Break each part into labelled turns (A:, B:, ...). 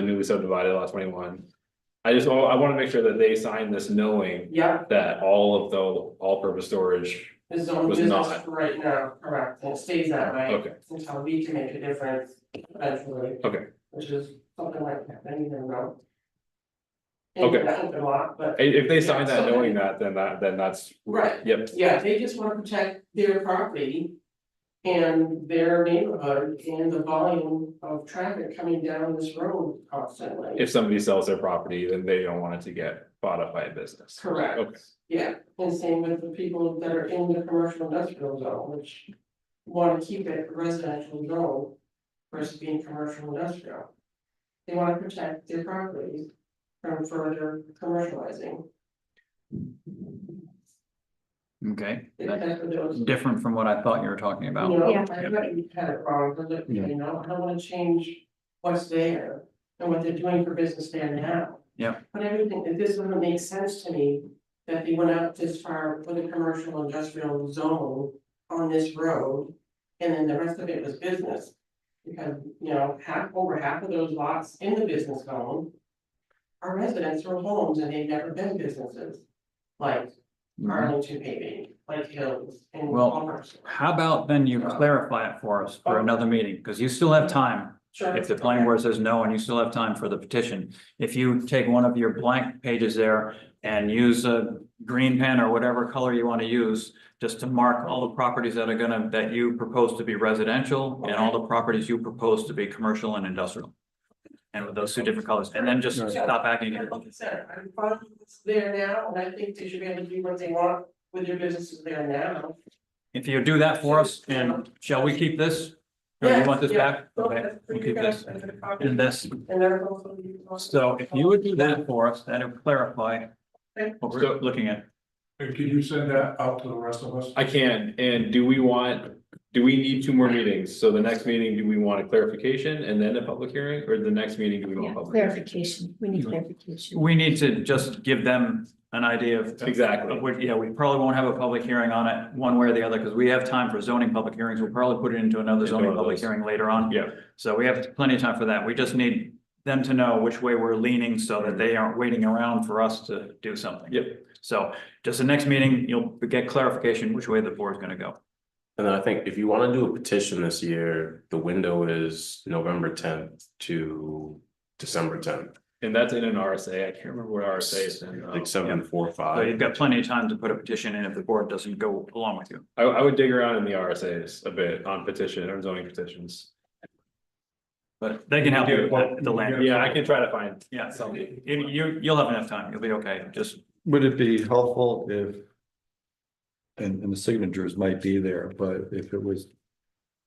A: the newly subdivided lot twenty-one. I just, wa- I wanna make sure that they sign this knowing
B: Yep,
A: that all of the all-purpose storage,
B: this is only
A: Was
B: business
A: not.
B: for right now, correct, and it stays that way.
A: okay,
B: Until we can make a difference eventually.
A: Okay.
B: Which is something like that, I don't even know.
A: Okay.
B: That open lot, but
A: I- if they sign that
B: Yeah, so-
A: knowing that, then that, then that's,
B: Right.
A: yep,
B: Yeah, they just wanna protect their property. And their neighborhood and the volume of traffic coming down this road constantly.
A: if somebody sells their property, then they don't want it to get bought up by a business. Okay.
B: Correct, yeah, and same with the people that are in the commercial industrial zone, which. Wanna keep it residential zone versus being commercial industrial. They wanna protect their properties from further commercializing,
C: Okay, that's
B: except for those.
C: different from what I thought you were talking about.
B: No,
D: Yeah.
B: I bet you had it wrong, because it- you know, I don't wanna change what's there and what they're doing for business there now.
C: Yeah.
B: But everything, it this doesn't make sense to me, that they went out this far with a commercial industrial zone on this road. And then the rest of it was business, because, you know, half, over half of those lots in the business zone. Are residents or homes and they've never been businesses, like Arlington paving, like Hills and
C: Mm-hmm. Well,
B: Palmer's.
C: How about then you clarify it for us for another meeting, because you still have time.
B: Sure.
C: If the planning board says no, and you still have time for the petition, if you take one of your blank pages there and use a green pen or whatever color you want to use, just to mark all the properties that are gonna, that you propose to be residential and all the properties you propose to be commercial and industrial. And with those two different colors, and then just stop acting.
B: Yeah, like I said, I'm fine with what's there now, and I think they should be able to do what they want with their businesses there now.
C: If you do that for us, and shall we keep this? Or you want this back? Okay, we'll keep this. And this,
B: And they're also.
C: so if you would do that for us, that'll clarify what we're looking at.
E: And can you send that out to the rest of us?
A: I can, and do we want, do we need two more meetings? So the next meeting, do we want a clarification and then a public hearing, or the next meeting, do we want
D: Yeah,
A: a public? hearing?
D: clarification, we need clarification.
C: We need to just give them an idea of.
A: Exactly.
C: of what- yeah, we probably won't have a public hearing on it one way or the other, because we have time for zoning public hearings. We'll probably put it into another
A: Into
C: zoning
A: one of
C: public
A: those.
C: hearing later on.
A: Yeah.
C: So we have plenty of time for that. We just need them to know which way we're leaning so that they aren't waiting around for us to do something.
A: Mm-hmm. Yep.
C: So just the next meeting, you'll get clarification which way the board's gonna go.
F: And then I think if you wanna do a petition this year, the window is November tenth to December tenth.
A: And that's in an RSA, I can't remember what RSA is in. um, now.
F: Like seven, four,
C: So
F: five.
C: you've got plenty of time to put a petition in if the board doesn't go along with you.
A: I, I would dig around in the RSA's a bit on petition or zoning petitions.
C: But they can help you with the land.
A: Yeah, I can try to find.
C: Yeah, so you, you, you'll have enough time. You'll be okay. Just
G: Would it be helpful if? And, and the signatures might be there, but if it was.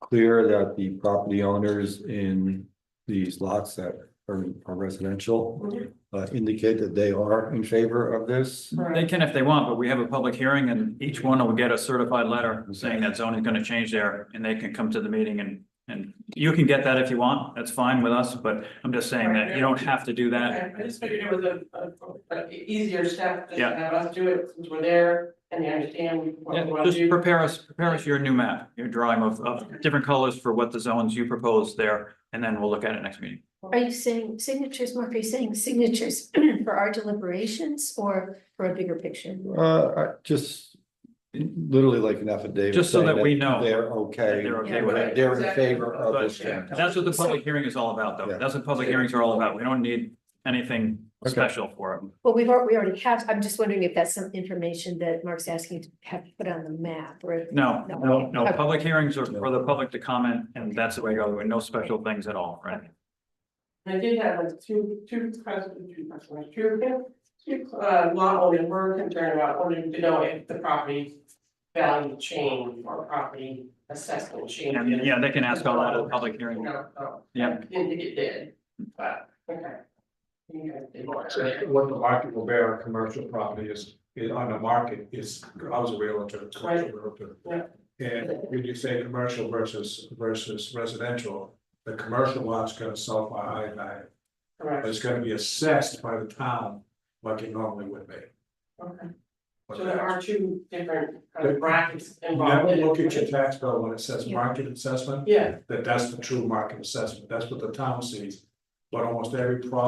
G: Clear that the property owners in these lots that are are residential, uh, indicate that they are in favor of this.
C: They can if they want, but we have a public hearing and each one will get a certified letter saying that zone is gonna change there and they can come to the meeting and. And you can get that if you want, that's fine with us, but I'm just saying that you don't have to do that.
B: I just figured it was a, a, a easier step just to
C: Yeah.
B: have us do it since we're there and they understand what we
C: Yeah,
B: want to
C: just
B: do.
C: prepare us, prepare us your new map, your drawing of, of different colors for what the zones you propose there, and then we'll look at it next meeting.
D: Are you saying signatures, Mark, are you saying signatures for our deliberations or for a bigger picture?
G: Uh, I just literally like an affidavit.
C: Just so that
G: saying
C: we know
G: They're
C: that
G: okay.
C: They're okay with it.
G: that They're in
B: Exactly.
G: favor of this.
C: But that's what the public hearing is all about, though.
G: Yeah.
C: That's what public hearings are all about. We don't need anything
G: Okay.
C: special for them.
D: Well, we've, al- we already have, I'm just wondering if that's some information that Mark's asking to have put on the map or. if-
C: No,
D: No.
C: no, no,
D: Okay.
C: public hearings are for the public to comment, and that's the way, it goes. no special things at all, right?
B: And I did have like two, two questions, two questions, two, two, uh, lot owners were concerned about wanting to know if the property value change or property assessment change.
C: And, yeah, they can ask all that at the public hearing.
B: No, no.
C: Yeah.
B: Didn't think it did, but, okay. You guys did more.
E: What the market will bear on commercial property is, is on the market is, I was a realtor, commercial realtor.
B: Right.
E: And when you say commercial versus versus residential, the commercial lot's gonna sell for a high value, but
B: Correct,
E: it's gonna be assessed by the town like it normally would be.
B: okay.
E: But
B: So there are two different kind of
E: But-
B: brackets involved.
E: Never
B: in it,
E: look at your
B: right?
E: tax bill when it says
D: Yeah.
E: market assessment,
B: Yeah,
E: that that's the true market assessment, that's what the town sees. But almost every problem